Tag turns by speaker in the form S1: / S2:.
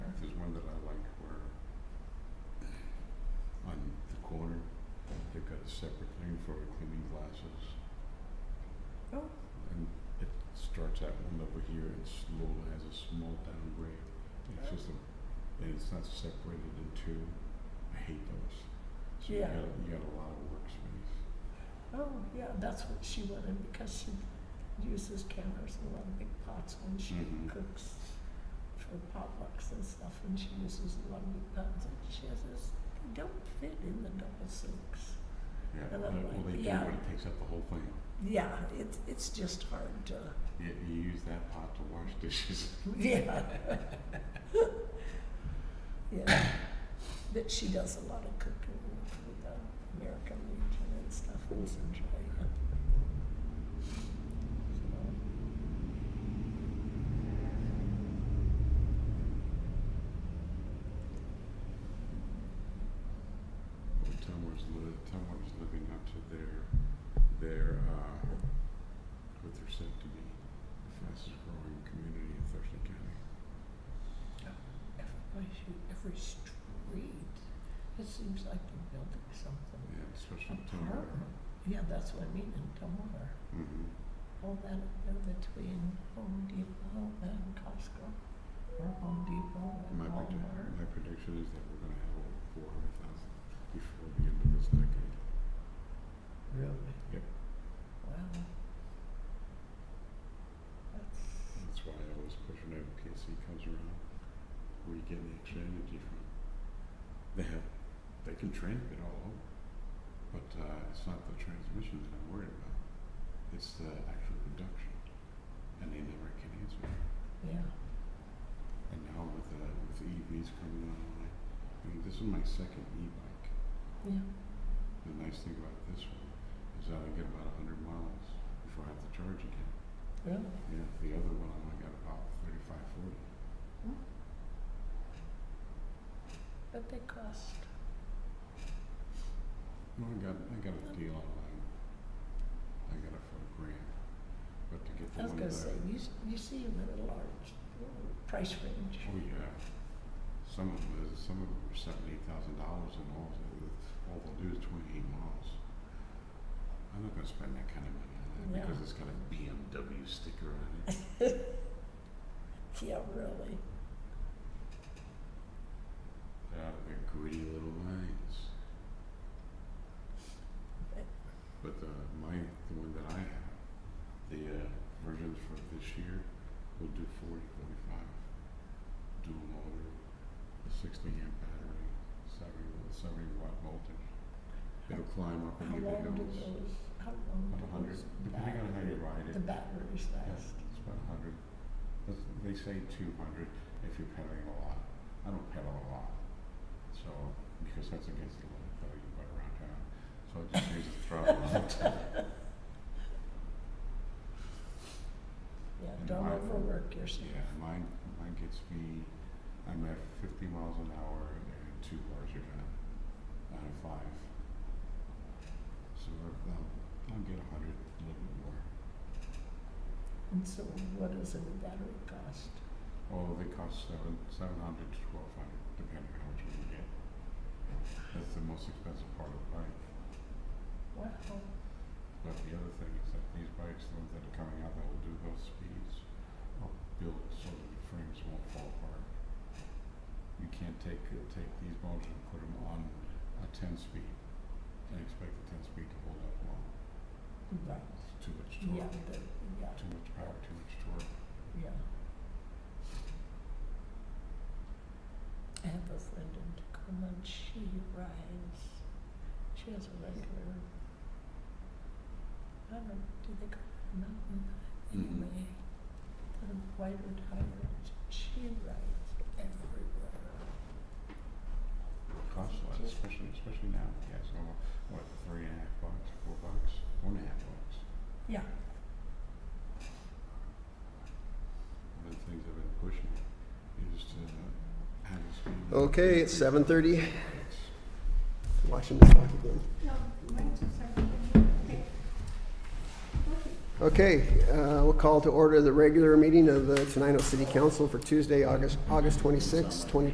S1: for cleaning glasses.
S2: Oh.
S1: And it starts out one over here and slowly has a small downgrade. It's just a, and it's not separated in two. I hate those. So
S2: Yeah.
S1: you got you got a lot of workspace.
S2: Oh, yeah, that's what she wanted because she uses counters and a lot of big pots when she
S1: Mhm.
S2: cooks for potlucks and stuff, and she uses a lot of big pots. And she says they don't fit in the double sinks.
S1: Yeah.
S2: And I'm
S1: uh,
S2: like,
S1: well, they
S2: yeah.
S1: do when it takes up the whole thing.
S2: Yeah, it's it's just hard to.
S1: Yeah, you use that pot to wash dishes.
S2: Yeah. yeah. But she does a lot of cooking for the American Legion and stuff in Central.
S1: Well, Tumwater's li- Tumwater's living up to their, their, uh, what they're said to be the fastest growing community in Thurston County.
S2: Every, every street, it seems like they're building something.
S1: Yeah, especially Tumwater.
S2: Apartment. Yeah, that's what I mean in Tumwater.
S1: Mm-hmm.
S2: All that up there between Home Depot and Costco, or Home Depot and
S1: My prediction,
S2: Walmart.
S1: my prediction is that we're gonna have over four hundred thousand before the end of this decade.
S2: Really?
S1: Yep.
S2: Wow. That's,
S1: That's why I always push whenever KC comes around, where you get the extra energy from. They have, they can transmit all over, but uh, it's not the transmission that I'm worried about. It's the actual production, and they never can answer. it.
S2: yeah,
S1: And now with uh, with EVs coming online, I mean, this is my second e-bike.
S2: yeah,
S1: The nice thing about this one is that I get about 100 miles before I have to charge again.
S2: really?
S1: Yeah, the other one I only got about 35, 40.
S2: But they cost,
S1: No, I got, I got a deal online. I got it for a grand. But to get the
S2: I was
S1: one
S2: gonna
S1: that
S2: say, you, s- you see them in a large uh, price range.
S1: oh yeah, some of them, is- some of them were seven, eight thousand dollars, and all they- all they'll do is twenty-eight miles. I'm not gonna spend that kind of money on that because
S2: No.
S1: it's got a BMW sticker on it.
S2: Yeah, really.
S1: Yeah, they're gritty little lines. But the, my, the one that I have, the uh, versions for this year will do 40, 45, dual motor, 60 amp battery, 70, wa- 70 watt voltage. It'll climb up
S2: How
S1: into the
S2: long do
S1: hills.
S2: those, how long
S1: About 100,
S2: do those
S1: depending on how you
S2: battery-
S1: ride it.
S2: the batteries
S1: Yeah,
S2: last?
S1: It's about a hundred. That's- They say two hundred if you're pedaling a lot. I don't pedal a lot, so, because that's against the law, though, you run around town. So I just use the throttle all the time.
S2: Yeah,
S1: And
S2: don't
S1: my-
S2: overwork yourself.
S1: Yeah, mine, mine gets me, I'm at fifty miles an hour and two bars are done, out of five. So I'll, I'll get a hundred, a little bit more.
S2: And so what does a battery cost?
S1: Oh, they cost seven, seven hundred to twelve hundred, depending on what you can get. That's the most expensive part of the bike.
S2: Wow,
S1: But the other thing is that these bikes, the ones that are coming out that will do those speeds, are built so that the frames won't fall apart. You can't take, uh, take these motors and put them on a ten speed and expect the ten speed to hold up long.
S2: right,
S1: It's too much
S2: yeah,
S1: torque,
S2: the, yeah,
S1: too much power, too much torque.
S2: yeah. I have a friend in Tacoma and she rides, she has a regular, I don't know, do they call it a mountain bike?
S1: Mhm.
S2: Anyway, the wider tires, she rides everywhere.
S1: costs a lot, especially especially now. Yeah, so what, three and a half bucks, four bucks, four and a half bucks.
S2: Yeah.
S1: One of the things I've been pushing is to have a speed. limit of
S3: Okay, it's
S1: 50
S3: 7:30.
S1: bikes.
S3: Watching the clock again.
S4: No, mine's just like, okay.
S3: Okay, uh, we'll uh, call to order the regular meeting of the Tenino City Council for Tuesday, August August 26, 2020.